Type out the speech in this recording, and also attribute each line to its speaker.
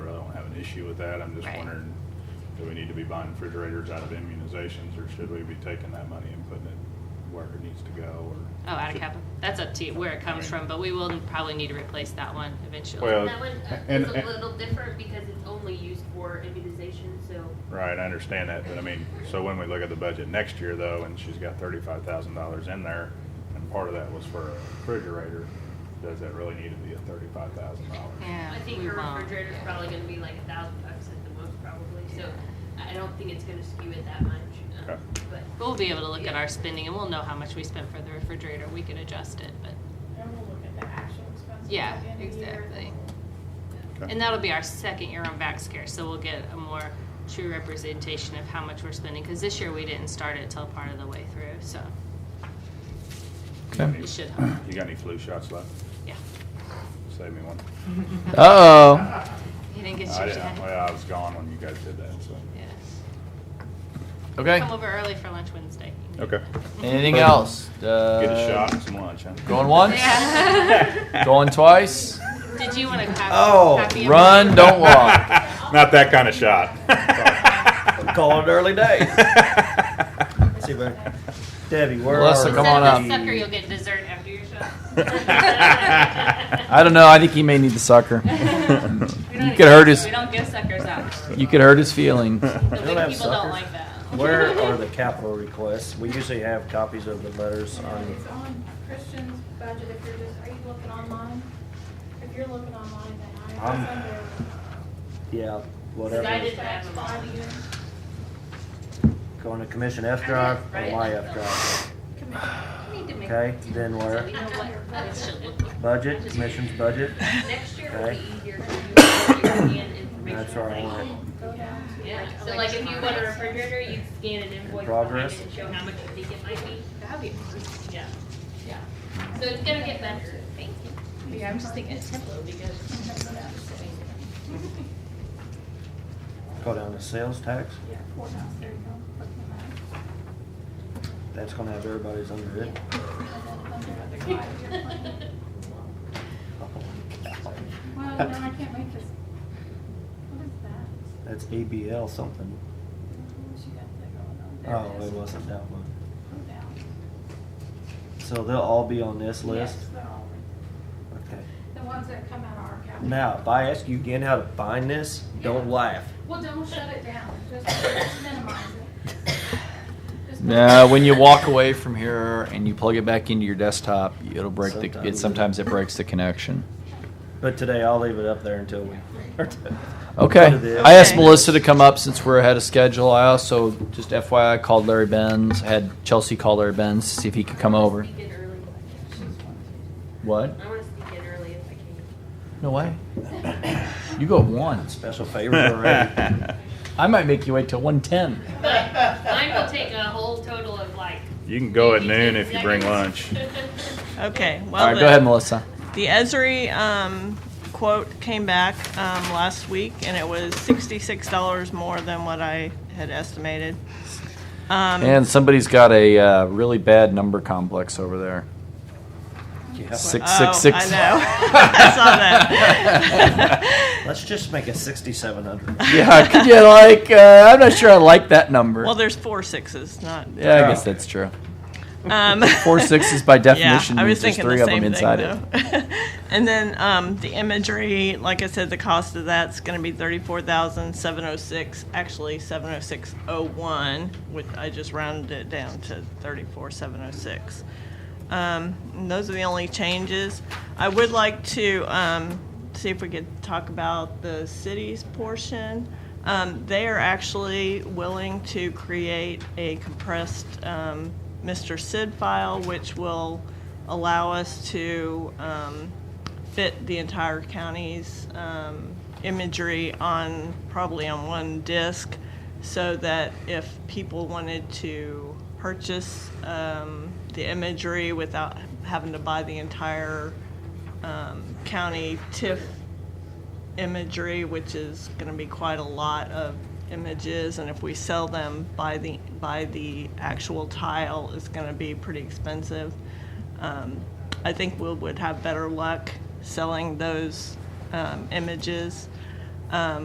Speaker 1: issue with that. I'm just
Speaker 2: Right.
Speaker 1: wondering, do we need to be buying refrigerators out of immunizations, or should we be taking that money and putting it where it needs to go, or?
Speaker 2: Oh, out of
Speaker 1: should-
Speaker 2: capital. That's up to you where it comes from, but we will probably need to replace that one eventually.
Speaker 1: Well,
Speaker 3: That one uh,
Speaker 1: and-
Speaker 3: is a
Speaker 1: and-
Speaker 3: little different because it's only used for immunization, so
Speaker 1: Right, I understand that, but I mean, so when we look at the budget next year though, and she's got thirty-five thousand dollars in there, and part of that was for a refrigerator, does that really need to be a thirty-five thousand dollars?
Speaker 2: yeah,
Speaker 3: I think
Speaker 2: we
Speaker 3: her
Speaker 2: won't.
Speaker 3: refrigerator's probably gonna be like a thousand bucks at the most probably, so I don't think it's gonna skew it that much. um,
Speaker 1: Okay.
Speaker 3: But
Speaker 2: We'll be able to look at our spending and we'll know how much we spent for the refrigerator. We could adjust it, but
Speaker 4: And we'll look at the actual expenses.
Speaker 2: Yeah,
Speaker 4: at the end of the year.
Speaker 2: exactly.
Speaker 1: Okay.
Speaker 2: And that'll be our second year on back scare, so we'll get a more true representation of how much we're spending, because this year we didn't start it till part of the way through, so
Speaker 5: Okay.
Speaker 2: we should, hope.
Speaker 1: You got any flu shots left?
Speaker 2: yeah.
Speaker 1: Save me one.
Speaker 5: Oh,
Speaker 2: You didn't get
Speaker 1: I
Speaker 2: your
Speaker 1: didn't-
Speaker 2: shot.
Speaker 1: Well, I was gone when you guys did that, so.
Speaker 2: Yeah.
Speaker 5: okay.
Speaker 2: Come over early for lunch Wednesday. You can do
Speaker 1: Okay.
Speaker 5: Anything else? Uh,
Speaker 1: Get a shot and some lunch, huh?
Speaker 5: Going once,
Speaker 2: that. Yeah.
Speaker 5: Uh, going twice.
Speaker 2: Did you want to copy?
Speaker 6: Oh,
Speaker 2: copy of
Speaker 5: Run,
Speaker 2: mine?
Speaker 5: don't walk.
Speaker 1: Not that kind of shot.
Speaker 6: Call it early days. See, but Debbie, where
Speaker 5: Melissa,
Speaker 6: are
Speaker 5: come on
Speaker 2: Instead of
Speaker 5: up.
Speaker 2: the Sucker, you'll get dessert after your shot.
Speaker 5: I don't know. I think he may need the sucker.
Speaker 2: We don't
Speaker 5: You could hurt
Speaker 2: give-
Speaker 5: his-
Speaker 2: We don't give suckers out.
Speaker 5: You could hurt his feelings.
Speaker 2: The
Speaker 6: don't
Speaker 2: big
Speaker 6: have
Speaker 2: people don't
Speaker 6: suckers.
Speaker 2: like that.
Speaker 6: Where are the capital requests? We usually have copies of the letters on.
Speaker 4: It's on Christian's budget, if you're just, are you looking online? If you're looking online, then I,
Speaker 6: I'm-
Speaker 4: it's under.
Speaker 6: Yeah, whatever.
Speaker 3: I didn't
Speaker 6: is
Speaker 3: have them
Speaker 4: Five
Speaker 3: on.
Speaker 4: units.
Speaker 6: Going to commission F drive or my F drive.
Speaker 3: we need to make
Speaker 6: Okay, then
Speaker 2: So
Speaker 6: where?
Speaker 2: you know what this should look like.
Speaker 6: Budget, commission's budget.
Speaker 3: next year will
Speaker 6: Okay.
Speaker 3: be easier for you to scan information.
Speaker 6: That's where I
Speaker 3: like-
Speaker 6: want. it.
Speaker 4: Go down to.
Speaker 3: Yeah, so like if you want a refrigerator, you'd scan an invoice behind
Speaker 6: progress.
Speaker 3: it and show how much you think it might be.
Speaker 2: That'd be awesome.
Speaker 3: Yeah. Yeah. So it's gonna get better. Thank you.
Speaker 2: Yeah, I'm just thinking tempo because.
Speaker 6: Go down to sales tax.
Speaker 4: Yeah, four thousand, there you go. Click on that.
Speaker 6: That's gonna have everybody's under it.
Speaker 4: Well, no, I can't make this. What is that?
Speaker 6: That's ABL something.
Speaker 4: She got that going on. There
Speaker 6: Oh,
Speaker 4: is.
Speaker 6: it wasn't that one.
Speaker 4: Go down.
Speaker 6: So they'll all be on this list?
Speaker 4: Yes, they're all right.
Speaker 6: Okay.
Speaker 4: The ones that come out of our capital.
Speaker 6: Now, if I ask you again how to find this, don't laugh.
Speaker 4: Well, don't shut it down, just minimize it. Just-
Speaker 5: Now, when you walk away from here and you plug it back into your desktop, it'll break the. It sometimes it breaks the connection.
Speaker 6: But today I'll leave it up there until we.
Speaker 5: Okay. I asked Melissa to come up since we're ahead of schedule. I also just FYI called Larry Benz. Had Chelsea call Larry Benz to see if he could come over.
Speaker 3: Sneak in early if I can.
Speaker 5: What?
Speaker 3: I wanna sneak in early if I can.
Speaker 5: No way. You go at one.
Speaker 6: Special favors already.
Speaker 5: I might make you wait till one ten.
Speaker 3: But mine will take a whole total of like.
Speaker 1: You can go at
Speaker 3: 50
Speaker 1: noon if you bring lunch.
Speaker 3: seconds.
Speaker 7: Okay, well,
Speaker 5: All right,
Speaker 7: the,
Speaker 5: go ahead, Melissa.
Speaker 7: the Esri um, quote came back um, last week, and it was sixty-six dollars more than what I had estimated. Um,
Speaker 5: And somebody's got a uh, really bad number complex over there.
Speaker 6: Yeah.
Speaker 5: Six six six.
Speaker 7: Oh, I know. I saw that.
Speaker 6: Let's just make it 6,700.
Speaker 5: Yeah, could you like? Uh, I'm not sure I like that number.
Speaker 7: well, there's four sixes, not
Speaker 5: yeah, I guess that's true.
Speaker 7: um,
Speaker 5: Four sixes by definition
Speaker 7: yeah, I was
Speaker 5: means there's
Speaker 7: thinking
Speaker 5: three
Speaker 7: the
Speaker 5: of them
Speaker 7: same
Speaker 5: inside it.
Speaker 7: thing, it. and then um, the imagery, like I said, the cost of that's going to be thirty-four thousand seven hundred six. Actually, seven hundred six oh one, which I just rounded it down to thirty-four seven hundred six. Um, and those are the only changes. I would like to um, see if we could talk about the city's portion. Um, they are actually willing to create a compressed um, Mr. Sid file, which will allow us to um, fit the entire county's um, imagery on probably on one disk so that if people wanted to purchase um, the imagery without having to buy the entire um, county TIFF imagery, which is going to be quite a lot of images, and if we sell them by the by the actual tile, it's going to be pretty expensive. Um, I think we would have better luck selling those um, images. Um,